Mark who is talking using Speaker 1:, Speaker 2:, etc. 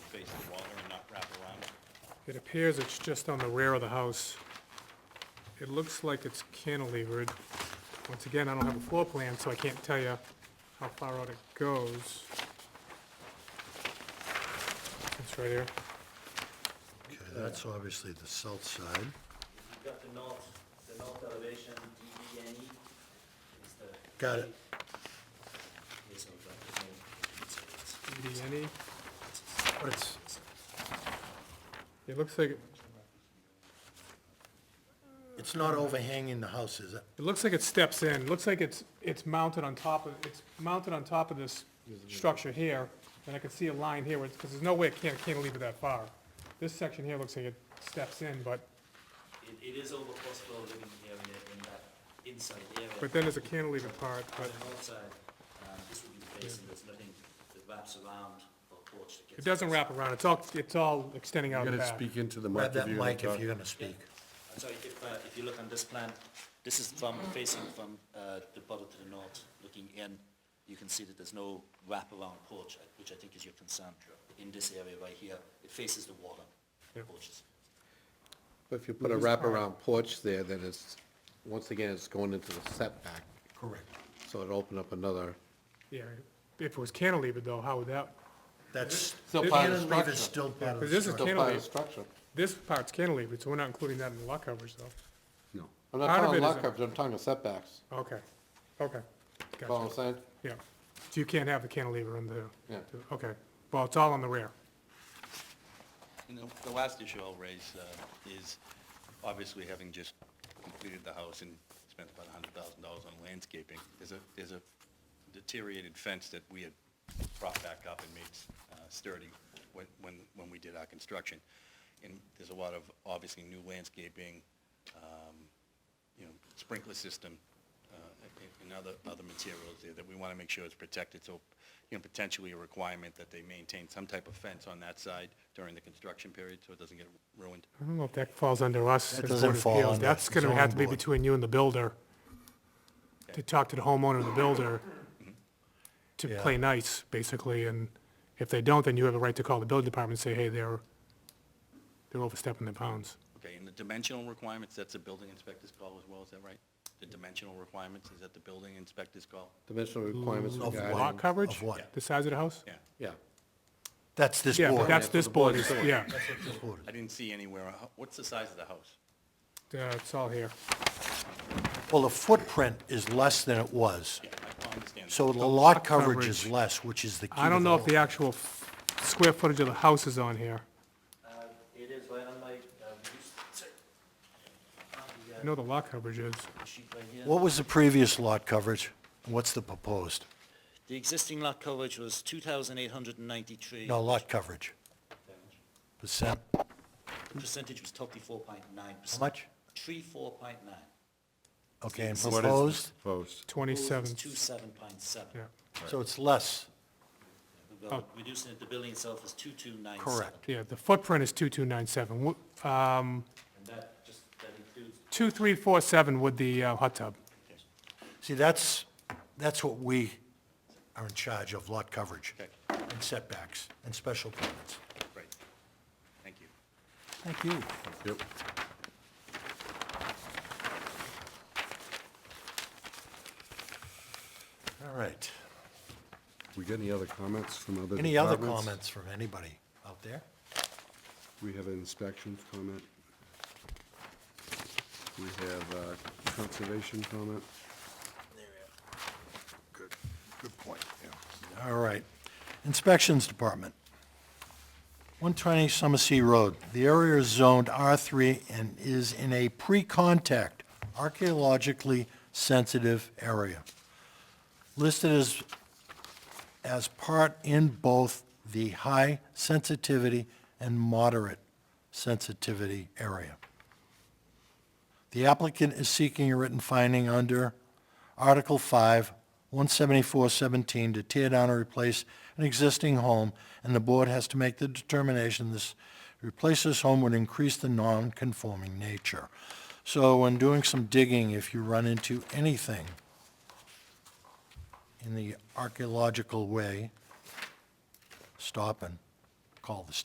Speaker 1: the water and not wrap around it?
Speaker 2: It appears it's just on the rear of the house. It looks like it's cantilevered. Once again, I don't have a floor plan, so I can't tell you how far out it goes. It's right here.
Speaker 3: Okay, that's obviously the south side.
Speaker 4: You've got the north, the north elevation, DBNE, is E. the.
Speaker 3: Got it.
Speaker 4: There's no, there's no- it's- it's-
Speaker 2: DNE.
Speaker 3: But it's,
Speaker 2: It looks like, it
Speaker 3: it's not overhanging the house, is it?
Speaker 2: looks like it steps in. It Looks like it's, it's mounted on top of, it's mounted on top of this structure here. And I can see a line here, because there's no way it can't cantilever that far. This section here looks like it steps in, but,
Speaker 4: It, it is over possible living here in, the- in that inside area.
Speaker 2: but then there's a cantilever part,
Speaker 4: On
Speaker 2: but
Speaker 4: the north side, um, this would be the basin, there's nothing that wraps around or porch that gets.
Speaker 2: It doesn't wrap around, it's all, it's all extending
Speaker 5: You
Speaker 2: out
Speaker 5: gotta
Speaker 2: back.
Speaker 5: speak into the mic
Speaker 3: Grab
Speaker 5: if
Speaker 3: that
Speaker 5: you're gonna
Speaker 3: mic if
Speaker 5: talk.
Speaker 3: you're gonna speak.
Speaker 4: I'm sorry, if, uh, if you look on this plan, this is from, facing from, uh, the bottom to the north, looking in, you can see that there's no wraparound porch, uh, which I think is your concern. In this area right here, it faces the water,
Speaker 2: Yeah.
Speaker 4: porches.
Speaker 5: If you put a wraparound porch there, then it's, once again, it's going into the setback,
Speaker 3: Correct.
Speaker 5: so it'll open up another.
Speaker 2: Yeah, if it was cantilevered though, how would that,
Speaker 3: That's,
Speaker 5: Still part of the
Speaker 3: cantilever is
Speaker 5: structure.
Speaker 3: still part
Speaker 2: But
Speaker 3: of the
Speaker 2: this is
Speaker 3: structure.
Speaker 2: Still part of the
Speaker 5: structure.
Speaker 2: this part's cantilevered, so we're not including that in the lot coverage though.
Speaker 5: No. I'm not
Speaker 2: Part of it
Speaker 5: talking
Speaker 2: is
Speaker 5: lot
Speaker 2: a-
Speaker 5: coverage, I'm talking setbacks.
Speaker 2: Okay, okay,
Speaker 5: Follow
Speaker 2: gotcha,
Speaker 5: what I'm saying?
Speaker 2: yeah. So you can't have the cantilever in the,
Speaker 5: Yeah.
Speaker 2: okay, well, it's all on the rear.
Speaker 1: And the, the last issue I'll raise, uh, is obviously having just completed the house and spent about a hundred thousand dollars on landscaping, there's a, there's a deteriorated fence that we had brought back up and made uh, sturdy when, when, when we did our construction. And there's a lot of, obviously, new landscaping, um, you know, sprinkler system, uh, and- and other, other materials there that we want to make sure is protected. So, you know, potentially a requirement that they maintain some type of fence on that side during the construction period so it doesn't get ruined.
Speaker 2: I don't know if that falls under us.
Speaker 3: That
Speaker 2: as
Speaker 3: doesn't
Speaker 2: Board of
Speaker 3: fall
Speaker 2: Appeals.
Speaker 3: under
Speaker 2: That's gonna
Speaker 3: zoning
Speaker 2: have to be
Speaker 3: board.
Speaker 2: between you and the builder, to talk to the homeowner and the builder, to
Speaker 3: Yeah.
Speaker 2: play nice, basically, and if they don't, then you have a right to call the building department and say, hey, they're, they're overstepping their bounds.
Speaker 1: Okay, and the dimensional requirements, that's a building inspector's call as well, is that right? The dimensional requirements, is that the building inspector's call?
Speaker 5: Dimensional requirements
Speaker 3: Of
Speaker 5: regarding.
Speaker 2: Lot coverage?
Speaker 3: Of what?
Speaker 2: The size of the house?
Speaker 1: Yeah,
Speaker 5: Yeah.
Speaker 3: That's this
Speaker 2: Yeah, but
Speaker 3: board.
Speaker 2: that's
Speaker 5: the
Speaker 2: this board,
Speaker 5: board's
Speaker 2: is-
Speaker 5: doing.
Speaker 2: yeah,
Speaker 3: This board.
Speaker 1: I didn't see anywhere, uh, what's the size of the house?
Speaker 2: Uh, it's all here.
Speaker 3: Well, the footprint is less than it was,
Speaker 1: Yeah, I understand that.
Speaker 3: so the lot coverage
Speaker 2: coverage.
Speaker 3: is less, which is the key.
Speaker 2: I
Speaker 3: to
Speaker 2: don't
Speaker 3: the
Speaker 2: know if the
Speaker 3: whole-
Speaker 2: actual f- square footage of the house is on here.
Speaker 4: Uh, it is right on my, uh, reduced- sorry. On the,
Speaker 2: I know the lot coverage is.
Speaker 4: uh, sheet right here.
Speaker 3: What was the previous lot coverage? What's the proposed?
Speaker 4: The existing lot coverage was two thousand eight hundred and ninety-three.
Speaker 3: No, lot coverage, percent, how
Speaker 4: Percentage was thirty-four point nine percent.
Speaker 3: much?
Speaker 4: Three four point nine.
Speaker 3: Okay, and
Speaker 5: What is this
Speaker 3: proposed,
Speaker 5: Proposed.
Speaker 2: Twenty-seven,
Speaker 4: Two seven point seven.
Speaker 2: yeah,
Speaker 3: so it's less,
Speaker 4: Well, Reducing it, the building itself is two two nine seven.
Speaker 3: correct.
Speaker 2: yeah, the footprint is two-two-nine-seven. Um,
Speaker 4: And that just, that includes
Speaker 2: two-three-four-seven with the uh, hot tub.
Speaker 3: See, that's, that's what we are in charge of, lot coverage
Speaker 1: Okay.
Speaker 3: and setbacks and special permits.
Speaker 1: Great, thank you.
Speaker 3: Thank you.
Speaker 5: Yep.
Speaker 3: All right.
Speaker 5: We got any other comments from other departments?
Speaker 3: Any other comments from anybody out there?
Speaker 5: We have an inspections comment. We have uh, conservation comment.
Speaker 3: Good, good point, yeah. All right. Inspections Department. 120 Summersea Road. The area is zoned R3 and is in a pre-contact archaeologically sensitive area. Listed as, as part in both the high sensitivity and moderate sensitivity area. The applicant is seeking a written finding under Article 5, 174-17, to tear down or replace an existing home, and the board has to make the determination this, replace this home would increase the non-conforming nature. So when doing some digging, if you run into anything in the archaeological way, stop and call the